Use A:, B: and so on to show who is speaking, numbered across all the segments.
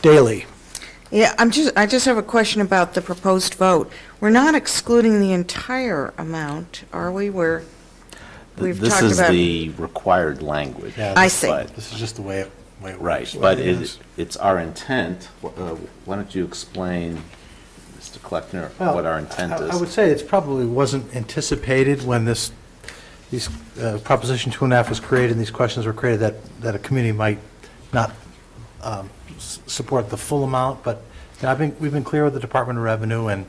A: daily.
B: Yeah, I'm just, I just have a question about the proposed vote. We're not excluding the entire amount, are we? We're, we've
C: This
B: talked
C: is
B: about,
C: the required language.
D: Yeah,
B: I see.
C: but-
D: This is just the way it, way it
C: Right,
D: works.
C: but it, it's our intent, uh, why don't you explain, Mr. Kleckner,
D: Well,
C: what our intent
D: I- I would
C: is?
D: say it probably wasn't anticipated when this, these, uh, Proposition Two and a Half was created and these questions were created, that, that a committee might not um, s- support the full amount, but you know, I've been, we've been clear with the Department of Revenue, and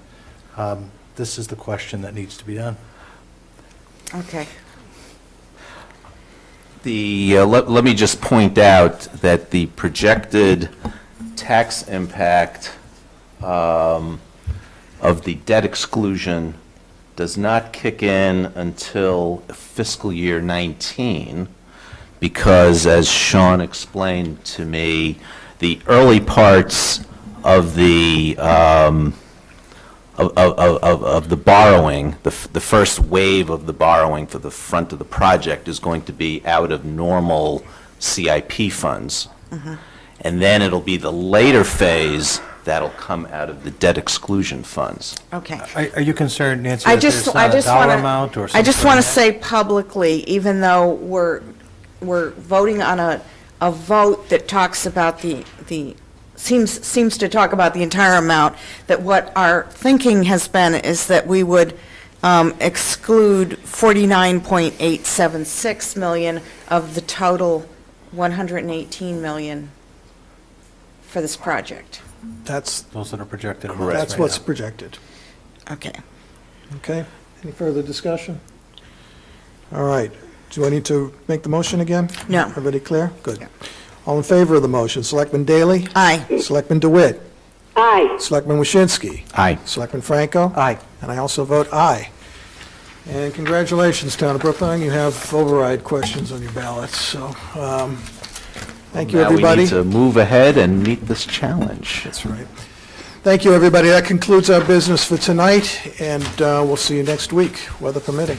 D: um, this is the question that needs to be done.
B: okay.
C: The, uh, let, let me just point out that the projected tax impact um, of the debt exclusion does not kick in until fiscal year 19, because as Sean explained to me, the early parts of the, um, of, of, of, of the borrowing, the, f- the first wave of the borrowing for the front of the project is going to be out of normal CIP funds. And then it'll be the later phase that'll come out of the debt exclusion funds.
B: Okay.
D: Are are you concerned, Nancy,
B: I
D: that there's
B: just, I
D: not a
B: just
D: dollar
B: want
D: amount or
B: to,
D: something?
B: I just want to say publicly, even though we're, we're voting on a, a vote that talks about the, the, seems, seems to talk about the entire amount, that what our thinking has been is that we would um, exclude 49.876 million of the total 118 million for this project.
A: That's,
D: Those that are projected. amounts
C: Correct.
A: that's
D: right
A: what's
D: now.
A: projected.
B: Okay.
A: Okay? Any further discussion? All right. Do I need to make the motion again?
B: No.
A: Everybody clear? Good.
B: Yeah.
A: All in favor of the motion? Selectman Daley?
B: Aye.
A: Selectman DeWitt?
E: Aye.
A: Selectman Waschinsky?
C: Aye.
A: Selectman Franco?
D: Aye.
A: And I also vote aye. And congratulations, Town of Brookline, you have override questions on your ballots, so, um, thank you,
C: Now we
A: everybody.
C: need to move ahead and meet this challenge.
A: That's right. Thank you, everybody. That concludes our business for tonight, and uh, we'll see you next week, weather permitting.